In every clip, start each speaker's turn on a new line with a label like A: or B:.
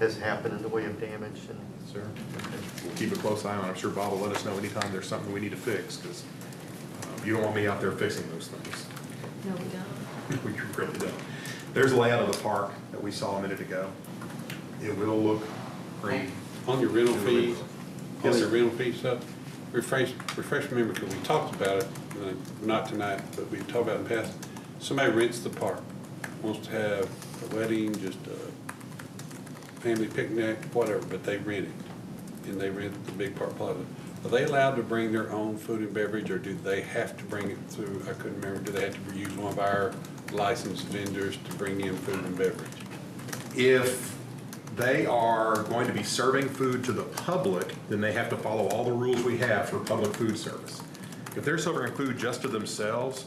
A: has happened in the way of damage and.
B: Sir, we'll keep a close eye on it. I'm sure Bob will let us know anytime there's something we need to fix, because you don't want me out there fixing those things.
C: No, we don't.
B: We really don't. There's a layout of the park that we saw a minute ago. It will look green.
D: On your rental
B: It really
D: fees,
B: will.
D: on
B: Yes, sir.
D: your rental fees stuff, refresh, refresh my memory, because we talked about it, uh, not tonight, but we talked about it in the past. Somebody rents the park, wants to have a wedding, just a family picnic, whatever, but they rent it. And they rent the big park plaza. Are they allowed to bring their own food and beverage, or do they have to bring it through, I couldn't remember, do they have to use one of our licensed vendors to bring in food and beverage?
B: If they are going to be serving food to the public, then they have to follow all the rules we have for public food service. If they're serving food just to themselves,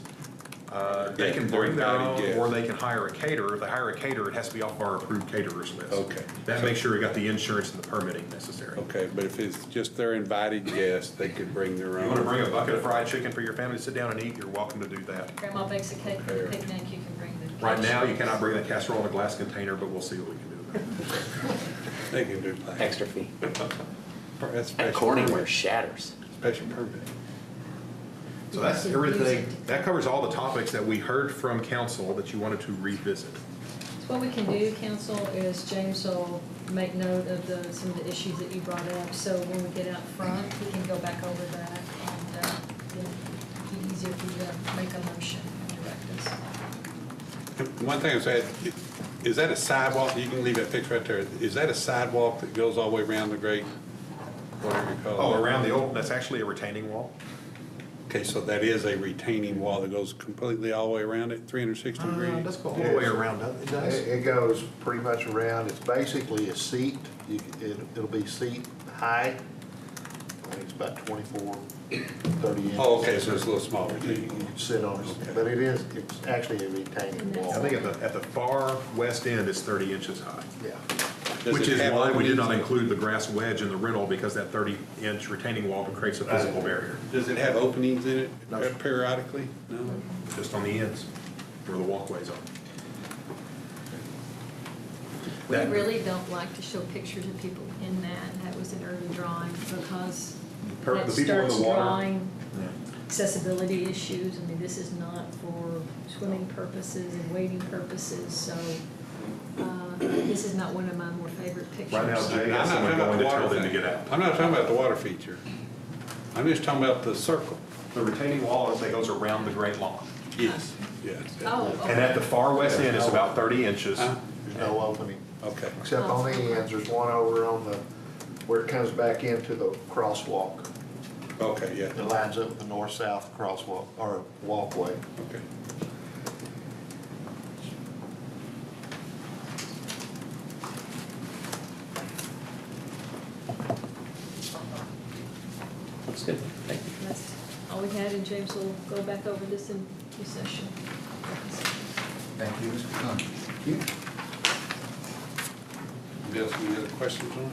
B: uh, they
D: Yeah,
B: can
D: they're
B: bring their
D: invited
B: own,
D: guests.
B: or they can hire a caterer. If they hire a caterer, it has to be off our approved caterers list.
D: Okay. Oh,
B: That makes sure we got the insurance and the permitting necessary.
D: Okay, but if it's just their invited guests, they could bring their own.
B: You want to bring a bucket of fried chicken for your family to sit down and eat, you're welcome to do that.
C: Grandma bakes a cake for the picnic, you can bring the.
B: Right now, you cannot bring the casserole in a glass container, but we'll see what we can do about it.
D: They can do that.
E: extra fee.
D: That's
E: That
D: special
E: Corningware
D: permit.
E: shatters.
D: Special permit.
B: So that's everything, that covers all the topics that we heard from council that you wanted to revisit.
C: So What we can do, council, is James will make note of the, some of the issues that you brought up, so when we get out front, we can go back over that and, uh, it'll be easier for you to make a motion and direct us.
D: One thing I was saying, is that a sidewalk, you can leave that picture right there, is that a sidewalk that goes all the way around the great, whatever you call
B: Oh,
D: it?
B: around the old, that's actually a retaining wall?
D: Okay, so that is a retaining wall that goes completely all the way around it, three hundred
C: Uh,
D: sixty degrees?
B: Uh, That's all the way around, doesn't it does.
F: It it goes pretty much around, it's basically a seat, You- it- it'll be seat high, I think it's about 24, 30 inches.
D: Oh, okay, so it's a little smaller. retaining wall.
F: You can sit on
D: Okay.
F: it, but it is, it's actually a retaining
C: And that's-
F: wall.
B: I think at the, at the far west end, it's thirty inches high.
F: Yeah.
D: Does
B: Which
D: it
B: is
D: have
B: why we did not
D: openings?
B: include the grass wedge in the rental, because that thirty-inch retaining wall creates a physical barrier,
D: Does it have openings in it
F: No, sir.
D: periodically? No?
B: just on the ends, where the walkways are.
C: We
B: That-
C: really don't like to show pictures of people in that, and that was an early drawing, because
B: Per-
C: that
B: the people in the
C: starts
B: water.
C: drawing
B: Yeah.
C: accessibility issues. I mean, this is not for swimming purposes and wading purposes, so uh, this is not one of my more favorite pictures.
B: Right now, Jay
D: I'm not
B: has someone
D: talking about
B: going
D: the
B: to tell
D: water
B: them to
D: thing.
B: get out.
D: I'm not talking about the water feature. I'm just talking about the circle.
B: The retaining wall, as they goes around the great lawn.
D: Yes. Yes.
C: Oh,
B: And at the far west end,
D: Oh.
B: it's about 30 inches.
D: Huh?
F: There's no opening,
D: Okay.
F: except on the ends, there's one over on the, where it comes back into the crosswalk.
D: Okay, yeah,
F: It lines up with the north-south crosswalk, or walkway.
D: okay.
E: Looks good. Thank you.
C: That's all we had, and James will go back over this in recession.
G: Thank you, Mr. Conlon.
D: Bill, any other questions on it?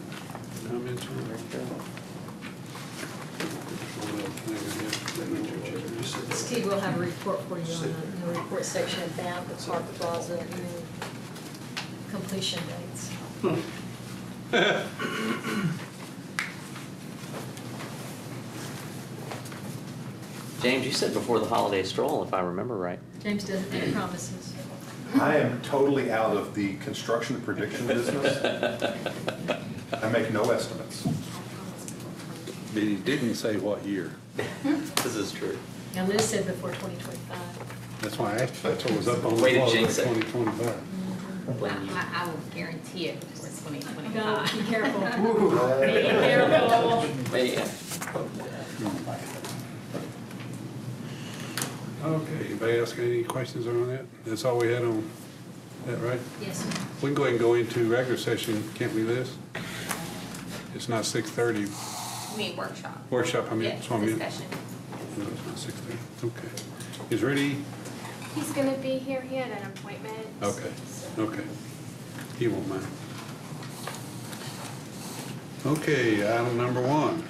D: Comments on it?
C: Steve will have a report for you on the- the report section about the park plaza and completion dates.
E: James, you said before the holiday stroll, if I remember right.
C: James doesn't make promises.
B: I am totally out of the construction prediction business. I make no estimates.
D: But he didn't say what year.
E: This is true.
C: Now Liz said before 2025.
D: That's why I asked, that's what was up on the
E: Way to
D: wall,
E: jinx it.
D: twenty twenty-five.
E: Blame you.
H: I, I will guarantee it for twenty
C: No,
H: twenty-five.
C: be careful. Be careful.
E: Yeah.
D: Okay, anybody else got any questions on that? That's all we had on, that right?
C: Yes, sir.
D: We can go ahead and go into regular session, can't we, Liz? It's not six thirty,
H: I mean, workshop.
D: workshop, I mean,
H: Yeah,
D: that's what I meant.
H: discussion.
D: No, it's not six thirty, okay. Is ready?
I: He's gonna be here, he had an appointment.
D: Okay,
I: so-
D: okay. He won't mind. Okay, item number one.